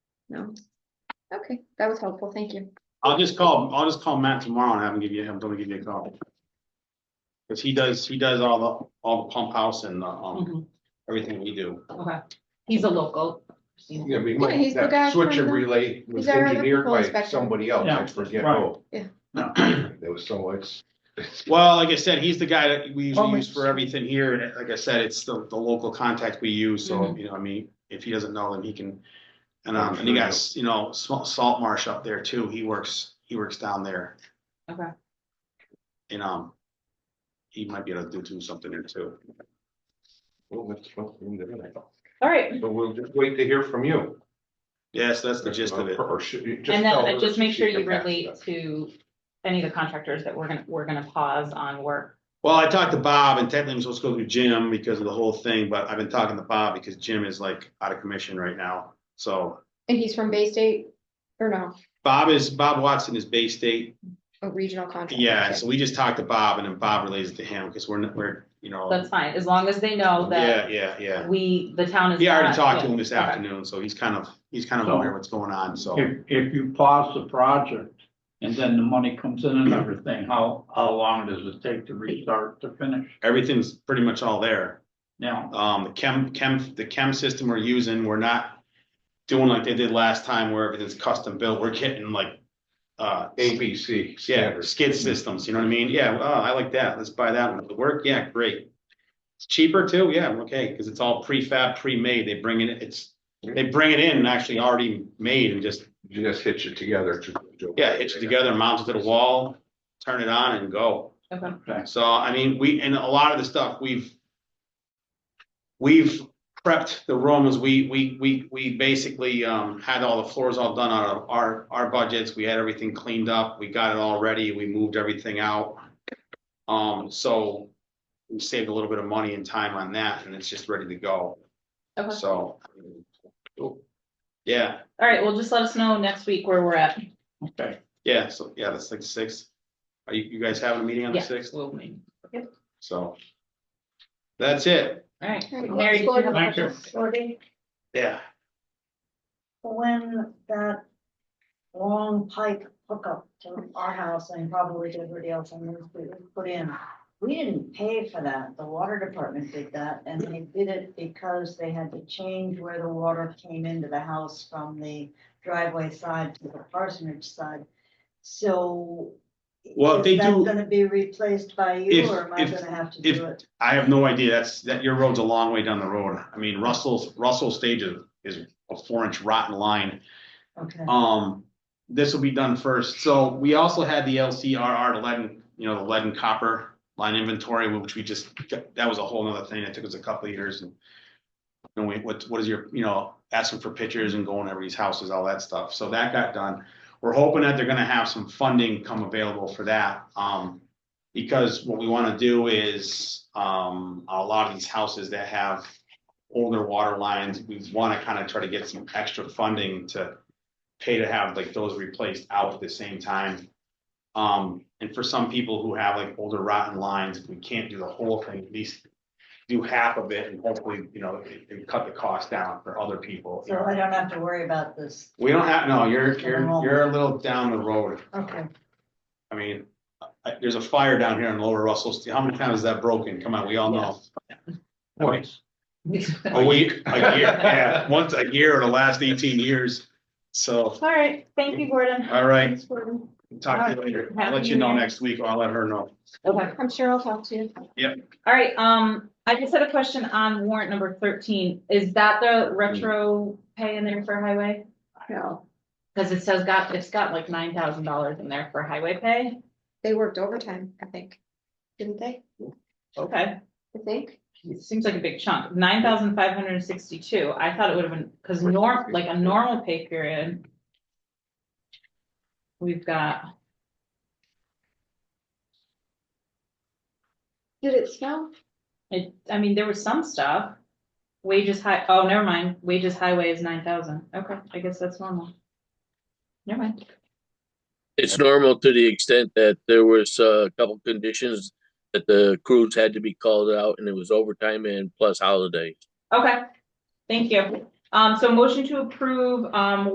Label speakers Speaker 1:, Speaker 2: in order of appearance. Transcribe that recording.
Speaker 1: No? Okay, that was helpful, thank you.
Speaker 2: I'll just call, I'll just call Matt tomorrow and have him give you, have him give you a call. Cause he does, he does all the, all the pump house and, uh, um,
Speaker 3: Mhm,
Speaker 2: everything we do.
Speaker 3: Okay, he's a local.
Speaker 4: Yeah, we
Speaker 1: Yeah, he's
Speaker 4: might,
Speaker 1: the guy
Speaker 4: that switch
Speaker 1: from
Speaker 4: and
Speaker 1: the-
Speaker 4: relay was
Speaker 1: our
Speaker 4: engineered
Speaker 1: electrical
Speaker 4: by
Speaker 1: inspector.
Speaker 4: somebody else,
Speaker 5: Yeah,
Speaker 4: I forget
Speaker 5: right.
Speaker 4: who.
Speaker 1: Yeah.
Speaker 4: There was so much.
Speaker 2: Well, like I said, he's the guy that we
Speaker 5: Oh,
Speaker 2: usually
Speaker 5: my-
Speaker 2: use for everything here, and like I said, it's the, the local contact we use, so,
Speaker 3: Mhm.
Speaker 2: you know, I mean, if he doesn't know, then he can. And, um,
Speaker 4: I'm
Speaker 2: and
Speaker 4: sure
Speaker 2: you
Speaker 4: he'll-
Speaker 2: guys, you know, Salt, Salt Marsh up there too, he works, he works down there,
Speaker 3: Okay,
Speaker 2: and, um. He might be able to do, do something there too.
Speaker 4: Well, that's what we did.
Speaker 3: all right,
Speaker 4: But we'll just wait to hear from you.
Speaker 2: Yes, that's the gist of it.
Speaker 4: Or should you just
Speaker 3: and
Speaker 4: tell
Speaker 3: then
Speaker 4: her
Speaker 3: just make
Speaker 4: she
Speaker 3: sure
Speaker 4: can
Speaker 3: you
Speaker 4: pass
Speaker 3: relate
Speaker 4: that.
Speaker 3: to any of the contractors that we're gonna, we're gonna pause on work.
Speaker 2: Well, I talked to Bob and technically I'm supposed to go through Jim because of the whole thing, but I've been talking to Bob because Jim is like out of commission right now. So
Speaker 1: And he's from Bay State, or no,
Speaker 2: Bob is, Bob Watson is Bay State.
Speaker 1: a regional contractor?
Speaker 2: Yeah, so we just talked to Bob and then Bob relays it to him because we're, not- we're, you know.
Speaker 3: That's fine, as long as they know
Speaker 2: Yeah,
Speaker 3: that
Speaker 2: yeah, yeah.
Speaker 3: we, the town is.
Speaker 2: He already
Speaker 3: not-
Speaker 2: talked to him this
Speaker 3: Okay.
Speaker 2: afternoon, so he's kind of, he's kind of
Speaker 5: So-
Speaker 2: aware what's going on, so.
Speaker 5: If, if you pause the project and then the money comes in and everything, how, how long does it take to restart to finish?
Speaker 2: Everything's pretty much all there.
Speaker 5: Now,
Speaker 2: Um, the chem, chem, the chem system we're using, we're not doing like they did last time where everything's custom built. We're getting like, uh,
Speaker 4: ABC
Speaker 2: yeah,
Speaker 4: standards.
Speaker 2: skid systems, you know what I mean? Yeah, oh, I like that. Let's buy that one. It'll work. Yeah, great. It's cheaper too. Yeah, okay, because it's all prefab, pre-made. They bring it, it's, they bring it in and actually already made and just,
Speaker 4: You just hitch it together. to-
Speaker 2: yeah, hitch it together, mount it to the wall, turn it on and go.
Speaker 3: Okay,
Speaker 5: okay,
Speaker 2: So, I mean, we, and a lot of the stuff, we've. We've prepped the rooms, we, we, we, we basically, um, had all the floors all done out of our, our budgets, we had everything cleaned up, we got it all ready, we moved everything out. Um, so. We saved a little bit of money and time on that, and it's just ready to go,
Speaker 3: okay,
Speaker 2: so. Yeah,
Speaker 3: all right, well, just let us know next week where we're at.
Speaker 5: okay.
Speaker 2: yeah, so, yeah, that's like the sixth. Are you, you guys having a meeting on the
Speaker 3: Yeah,
Speaker 2: sixth?
Speaker 3: we'll meet.
Speaker 2: So. That's it,
Speaker 3: All right,
Speaker 1: All right, well,
Speaker 3: Mary, did you have a
Speaker 5: Thank you.
Speaker 3: question?
Speaker 6: Shorty,
Speaker 2: yeah.
Speaker 6: when that long pipe hookup to our house and probably to everybody else on this, we put in. We didn't pay for that. The water department did that and they did it because they had to change where the water came into the house from the driveway side to the parsonage side. So.
Speaker 2: Well,
Speaker 6: is
Speaker 2: they
Speaker 6: that
Speaker 2: do-
Speaker 6: Gonna be replaced by
Speaker 2: If-
Speaker 6: you or am I
Speaker 2: if-
Speaker 6: gonna have to
Speaker 2: if-
Speaker 6: do it?
Speaker 2: I have no idea. That's, that, your road's a long way down the road. I mean, Russell's, Russell's stage is, is a four inch rotten line.
Speaker 6: Okay,
Speaker 2: Um, this will be done first. So we also had the LCRR, the lead and, you know, the lead and copper line inventory, which we just, that was a whole nother thing. It took us a couple of years and and we, what, what is your, you know, asking for pictures and going everybody's houses, all that stuff. So that got done. We're hoping that they're gonna have some funding come available for that. Um, because what we wanna do is, um, a lot of these houses that have older water lines, we wanna kinda try to get some extra funding to pay to have like those replaced out at the same time. Um, and for some people who have like older rotten lines, if we can't do the whole thing, at least do half of it and hopefully, you know, it- it cut the cost down for other people. you
Speaker 6: so
Speaker 2: know.
Speaker 6: I don't have to worry about this.
Speaker 2: We don't have, no, you're, you're, you're a little down the road.
Speaker 6: Okay,
Speaker 2: I mean, I- there's a fire down here in Lower Russell. Street. How many times is that broken? Come on, we all know.
Speaker 5: Twice.
Speaker 2: A week, a year, yeah, once a year in the last eighteen years. So,
Speaker 3: All right, thank you, Gordon.
Speaker 2: all right,
Speaker 3: Thanks, Gordon.
Speaker 2: talk to you later. I'll let you know next week or I'll let her know.
Speaker 3: Okay.
Speaker 1: I'm sure I'll talk to you.
Speaker 3: All right, um, I just had a question on warrant number thirteen. Is that the retro pay in there for highway?
Speaker 1: No,
Speaker 3: Cause it says got, it's got like nine thousand dollars in there for highway pay.
Speaker 1: they worked overtime, I think. Didn't they?
Speaker 3: Okay.
Speaker 1: I think.
Speaker 3: It seems like a big chunk, nine thousand five hundred and sixty-two. I thought it would have been, cause norm, like a normal pay period. We've got,
Speaker 1: Did it snow?
Speaker 3: it, I mean, there was some stuff. Wages high, oh, never mind. Wages highway is nine thousand. Okay, I guess that's normal. Never mind.
Speaker 7: It's normal to the extent that there was uh, a couple conditions that the crews had to be called out and it was overtime and plus holidays.
Speaker 3: Okay, thank you. Um, so motion to approve, um,